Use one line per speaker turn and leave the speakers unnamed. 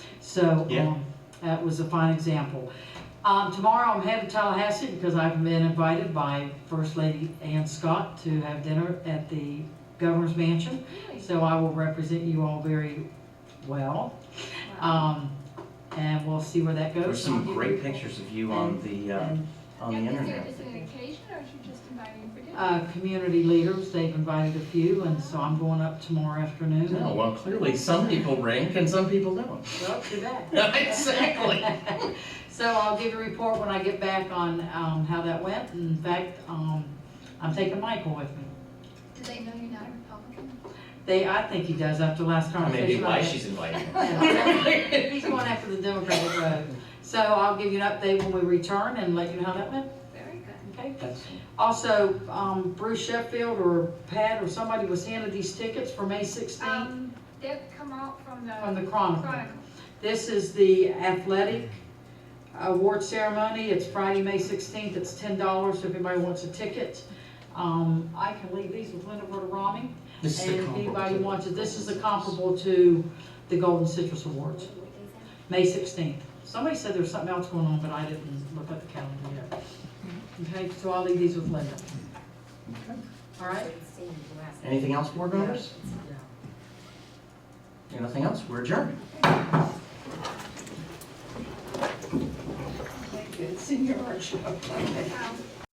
So,
Yeah.
um, that was a fine example. Um, tomorrow I'm headed to Tallahassee because I've been invited by First Lady Ann Scott to have dinner at the Governor's Mansion. So I will represent you all very well. Um, and we'll see where that goes.
There's some
And I'll give
great
you-
pictures of you on the, uh,
and,
on the
Is there
internet.
just an occasion or is she just inviting you for dinner?
Uh, community leaders, they've invited a few, and so I'm going up tomorrow afternoon.
No, well, clearly some people rank and some people don't.
Well, too bad.
Exactly.
So I'll give a report when I get back on, um, how that went. In fact, um, I'm taking Michael with me.
Do they know you're not a Republican?
They, I think he does after last
Maybe
conversation. I
why
had.
she's inviting him.
Yeah. He's going after the Democratic road. So I'll give you an update when we return and let you know how that went,
Very good.
okay?
That's-
Also, um, Bruce Sheffield or Pat or somebody was handed these tickets for May sixteenth
Um, Deb come out from the.
from the Chronicle.
Chronicle.
This is the athletic award ceremony. It's Friday, May sixteenth. It's ten dollars if anybody wants a ticket. Um, I can leave these with Linda Verderami.
This is the
And if
comparable.
anybody wants it, this is the comparable to the Golden Citrus Awards, May sixteenth. Somebody said there was something else going on, but I didn't look at the calendar yet. Okay, so I'll leave these with Linda. All right?
Anything else, board members? Anything else? We're adjourned.
Um,